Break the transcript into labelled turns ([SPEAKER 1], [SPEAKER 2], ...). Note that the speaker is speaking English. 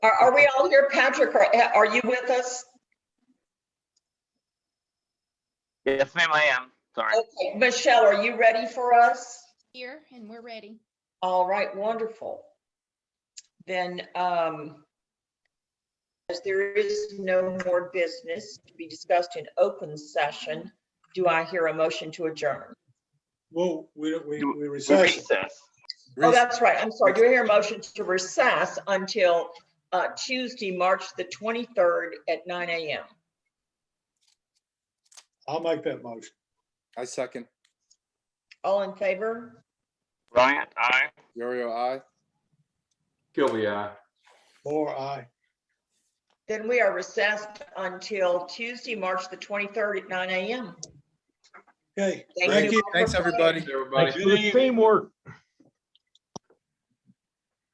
[SPEAKER 1] Are, are we all here, Patrick? Are, are you with us?
[SPEAKER 2] Yes, ma'am, I am. Sorry.
[SPEAKER 1] Okay, Michelle, are you ready for us?
[SPEAKER 3] Here, and we're ready.
[SPEAKER 1] All right, wonderful. Then, um, as there is no more business to be discussed in open session, do I hear a motion to adjourn?
[SPEAKER 4] Well, we, don't- we,
[SPEAKER 2] Do-
[SPEAKER 4] we recess.
[SPEAKER 2] Recess.
[SPEAKER 1] Oh, that's right. I'm sorry. Do I hear a motion to recess until, uh, Tuesday, March the twenty-third at nine AM?
[SPEAKER 4] I'll make that motion.
[SPEAKER 5] I second.
[SPEAKER 1] All in favor?
[SPEAKER 2] Bryant, aye.
[SPEAKER 5] Yorio, I.
[SPEAKER 6] Gilby, aye.
[SPEAKER 4] Or I,
[SPEAKER 1] Then we are recessed until Tuesday, March the twenty-third at nine AM.
[SPEAKER 4] okay.
[SPEAKER 1] Thank
[SPEAKER 4] Thank
[SPEAKER 1] you.
[SPEAKER 4] you.
[SPEAKER 5] Thanks, everybody.
[SPEAKER 6] Everybody.
[SPEAKER 4] Good evening.
[SPEAKER 7] Teamwork.